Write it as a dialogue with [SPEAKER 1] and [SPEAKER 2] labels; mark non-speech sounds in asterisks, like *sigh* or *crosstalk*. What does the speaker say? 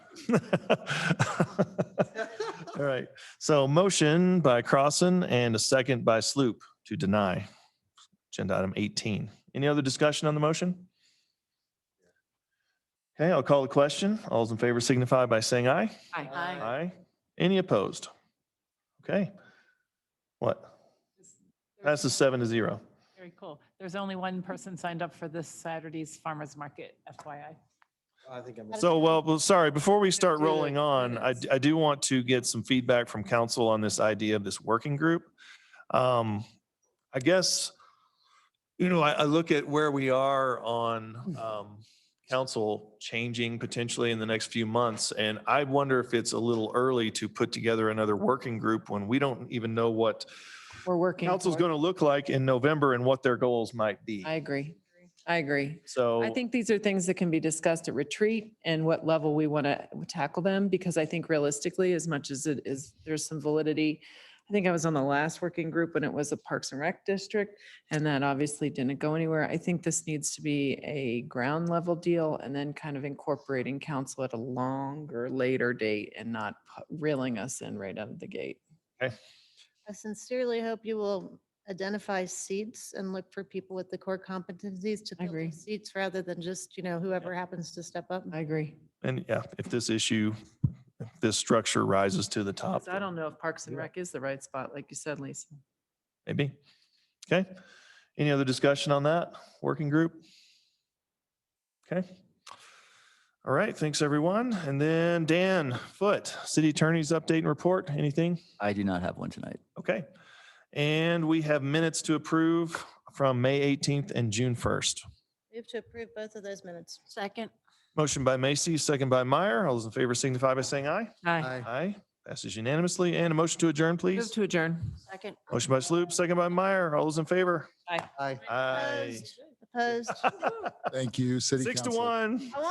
[SPEAKER 1] *laughs* All right. So motion by Crossan and a second by Sloop to deny agenda item 18. Any other discussion on the motion? Okay, I'll call the question. All those in favor signify by saying aye.
[SPEAKER 2] Aye.
[SPEAKER 1] Aye. Any opposed? Okay. What? Passes seven to zero.
[SPEAKER 2] Very cool. There's only one person signed up for this Saturday's farmer's market, FYI.
[SPEAKER 3] I think I'm.
[SPEAKER 1] So, well, well, sorry, before we start
[SPEAKER 3] do the
[SPEAKER 1] rolling on, I,
[SPEAKER 3] minutes.
[SPEAKER 1] d- I do want to get some feedback from council on this idea of this working group. Um, I guess, you know, I, I look at where we are
[SPEAKER 4] Hmm.
[SPEAKER 1] on, um, council changing potentially in the next few months. And I wonder if it's a little early to put together another working group when we don't even know what
[SPEAKER 4] We're working.
[SPEAKER 1] council's
[SPEAKER 4] toward-
[SPEAKER 1] going to look like in November and what their goals might be.
[SPEAKER 4] I agree. I agree.
[SPEAKER 1] So.
[SPEAKER 4] I think these are things that can be discussed at retreat and what level we want to tackle them, because I think realistically, as much as it is, there's some validity. I think I was on the last working group when it was a Parks and Rec district, and that obviously didn't go anywhere. I think this needs to be a ground level deal and then kind of incorporating council at a longer, later date and not pu- reeling us in right out of the gate.
[SPEAKER 5] I sincerely hope you will identify seats and look for people with the core competencies to
[SPEAKER 4] I
[SPEAKER 5] fill
[SPEAKER 4] agree.
[SPEAKER 5] those seats rather than just, you know, whoever happens to step up.
[SPEAKER 4] I agree.
[SPEAKER 1] And yeah, if this issue, if this structure rises to the top.
[SPEAKER 4] 'Cause I don't know if Parks and
[SPEAKER 1] Uh, Yeah.
[SPEAKER 4] Rec is the right spot, like you said, Lisa.
[SPEAKER 1] Maybe. Okay. Any other discussion on that working group? Okay. All right. Thanks, everyone. And then Dan Foot, City Attorney's Update and Report. Anything?
[SPEAKER 6] I do not have one tonight.
[SPEAKER 1] Okay. And we have minutes to approve from May 18th and June 1st.
[SPEAKER 5] Move to approve both of those minutes.
[SPEAKER 2] Second.
[SPEAKER 1] Motion by Macy, second by Meyer. All those in favor signify by saying aye.
[SPEAKER 2] Aye.
[SPEAKER 3] I
[SPEAKER 1] Aye. Passes unanimously. And a motion to adjourn,
[SPEAKER 4] Move
[SPEAKER 1] please.
[SPEAKER 4] to adjourn.
[SPEAKER 2] Second.
[SPEAKER 1] Motion by Sloop, second by Meyer. All those in favor?
[SPEAKER 3] I
[SPEAKER 1] Aye.
[SPEAKER 5] Opposed? Opposed?
[SPEAKER 7] Thank you, City
[SPEAKER 1] Six to
[SPEAKER 7] Council.
[SPEAKER 1] one.